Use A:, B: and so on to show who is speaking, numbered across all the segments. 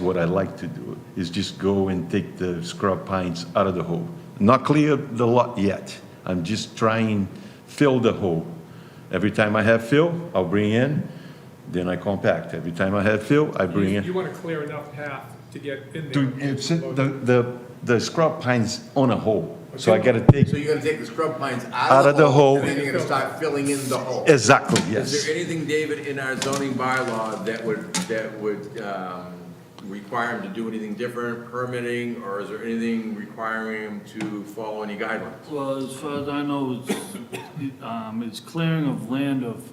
A: What I like to do is just go and take the scrub pines out of the hole. Not clear the lot yet. I'm just trying fill the hole. Every time I have fill, I'll bring in, then I compact. Every time I have fill, I bring
B: You
A: in.
B: you want to clear enough path to get in
A: To,
B: there.
A: it's, the, the, the scrub pines on a hole, so I gotta
C: So
A: take,
C: you're gonna take the scrub pines
A: Out of the hole.
C: And then you're gonna start filling in the hole.
A: exactly,
C: Is
A: yes.
C: there anything, David, in our zoning bylaw that would, that would, um, require him to do anything different, permitting, or is there anything requiring him to follow any guidelines?
D: Well, as far as I know, it's, um, it's clearing of land of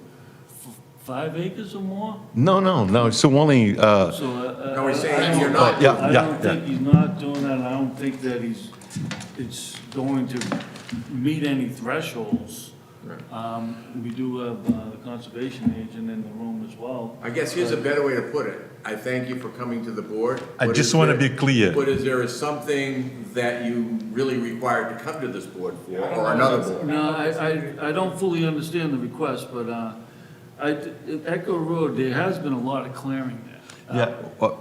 D: f- five acres or more,
A: No, no, no, so only, uh,
D: so. uh,
C: No, he's
D: I-
C: saying
D: I don't-
C: you're not
A: Yeah,
D: I
A: yeah,
D: don't
A: yeah.
D: think he's not doing that, and I don't think that he's, it's going to meet any thresholds.
C: Right.
D: Um, we do have, uh, the conservation agent in the room as well.
C: I guess here's a better way to put it. I thank you for coming to the board.
A: I
C: but
A: just
C: is
A: wanna
C: there-
A: be clear.
C: But is there something that you really required to come to this board for,
B: I don't know.
C: or another board?
D: No, I, I, I don't fully understand the request, but, uh, I, Echo Road, there has been a lot of clearing there.
A: Yeah, well,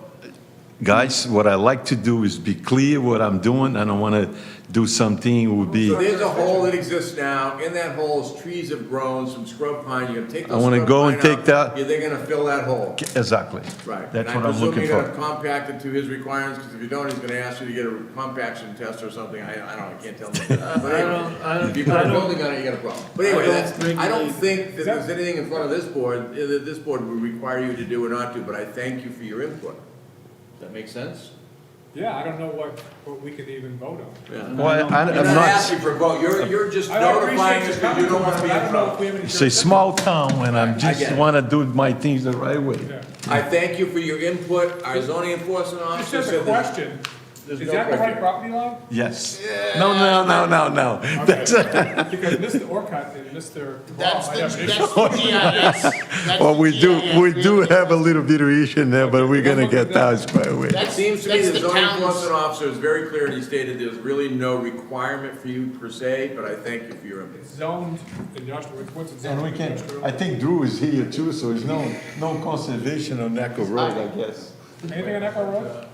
A: guys, what I like to do is be clear what I'm doing. I don't want to do something would be,
C: So
A: I
C: there's a hole that exists now, in that hole is trees have grown, some scrub pine, you're gonna take
A: I
C: those
A: wanna
C: scrub
A: go and
C: pine out,
A: take that-
C: You're, they're gonna fill that hole,
A: exactly.
C: right.
A: That's what I'm looking
C: And I presume you're gonna
A: for.
C: compact it to his requirements, because if you don't, he's gonna ask you to get a compaction test or something, I, I don't, know, I can't tell him. But
D: I don't- I
C: anyway,
D: don't-
C: if you put
D: I
C: a
D: don't-
C: building on it, you got a problem. But
D: I
C: anyway,
D: don't
C: that's, I don't
D: regulate-
C: think that there's anything in front of this board, eh, that this board would require you to do or not do, but I thank you for your input. Does that make sense?
B: Yeah, I don't know what, what we could even vote on.
C: Yeah.
A: Well, I- I'm
C: You're not
A: not,
C: asking for a vote, you're, you're just
B: I
C: notifying
B: appreciate
C: us
B: you coming
C: because you
B: to
C: don't
B: us,
C: want to
B: but
C: be
B: I don't
C: in
B: know
C: trouble.
B: if we have any.
A: it's a small town and I'm
C: get
A: just
C: it.
A: want to do my things the right way.
B: Yeah.
C: I thank you for your input, our zoning enforcement
B: It's
C: officer
B: just a
C: said that.
B: question.
C: There's
B: Is
C: no
B: that the right
C: criteria.
B: property line?
A: Yes. No, no, no, no, no. That's,
B: Because Mr. Orcutt and Mr. Braun
E: That's
B: might
E: the,
B: have an
E: that's
B: issue.
E: the GIS. That's
F: Well,
E: the
F: we do, we
E: GIS.
F: do have a little bit of issue in there, but we're gonna get that squared away.
C: It
E: That's-
C: seems to me
E: that's
C: the zoning
E: town's-
C: enforcement officer is very clear, and he stated there's really no requirement for you per se, but I thank you for your input.
B: Zoned industrial, what's it zoned
A: and we can,
B: industrial?
A: I think Drew is here too, so there's no, no conservation on Echo Road, I guess.
B: Anything on Echo Road?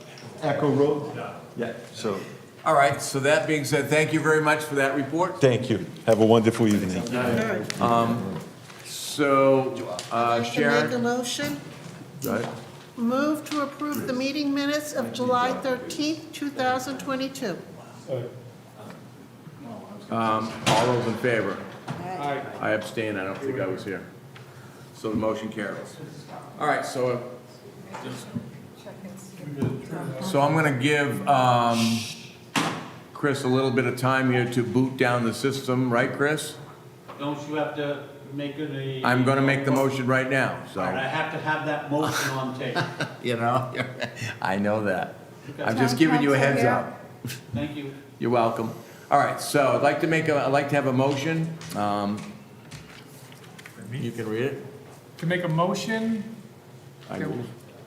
A: Echo Road? Yeah, so,
C: All right, so that being said, thank you very much for that report.
A: thank you. Have a wonderful evening.
C: So, uh,
E: To make
C: Sharon,
E: a motion,
C: right?
E: move to approve the meeting minutes of July 13th, 2022.
C: Uh, um, all those in favor?
B: Aye.
C: I abstain, I don't think I was here. So the motion carries. All right, so, so I'm gonna give, um, Chris a little bit of time here to boot down the system, right, Chris?
G: Don't you have to make it a?
C: I'm gonna make the motion right now,
G: But I
C: so,
G: have to have that motion on tape.
C: you know, I know that. I'm
G: Okay.
C: just giving you a heads up.
G: Thank you.
C: You're welcome. All right, so I'd like to make a, I'd like to have a motion, um, you can read it.
B: To make a motion
C: I
B: that-
C: move.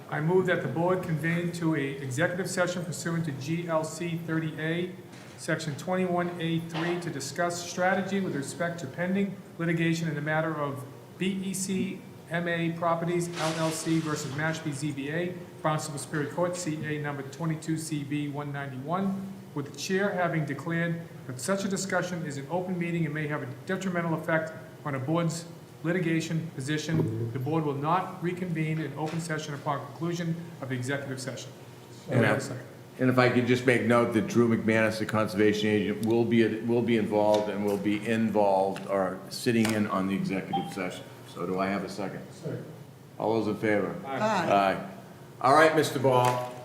B: I move that the board convene to a executive session pursuant to GLC 30A, Section 21A3, to discuss strategy with respect to pending litigation in the matter of E BEC MA Properties LLC versus Mashpee ZBA, Barnstable Superior Court, CA number 22CB 191, with the chair having declared that such a discussion is an open meeting and may have a detrimental effect on a board's litigation position. The board will not reconvene in open session upon conclusion of the executive session.
C: And I-
B: Wait a second.
C: And if I could just make note that Drew McManus, the conservation agent, will be, will be involved and will be involved or sitting in on the executive session. So do I have a second? All those in favor?
E: Aye.
C: Aye. All right, Mr. Ball,